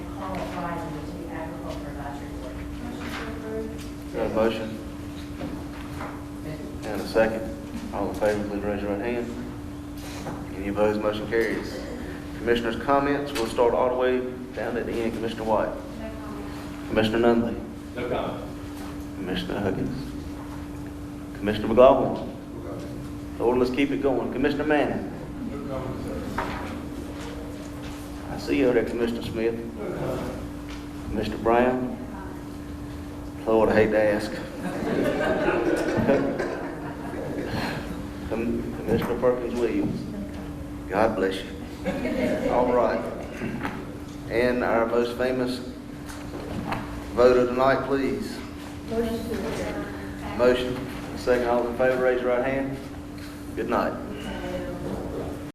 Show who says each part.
Speaker 1: a motion and a second. All in favor, please raise your right hand. Any opposed, motion carries. Commissioners' comments, we'll start all the way down at the end. Commissioner White. Commissioner Nunley.
Speaker 2: No comment.
Speaker 1: Commissioner Huggins. Commissioner McGlaughlin. Lord, let's keep it going. Commissioner Manning.
Speaker 2: No comment, sir.
Speaker 1: I see you over there, Commissioner Smith. Mr. Brown? Lord, I hate to ask. Com- Commissioner Perkins Williams? God bless you. All right. And our most famous voter tonight, please. Motion to Motion. Second, all in favor, raise your right hand. Good night.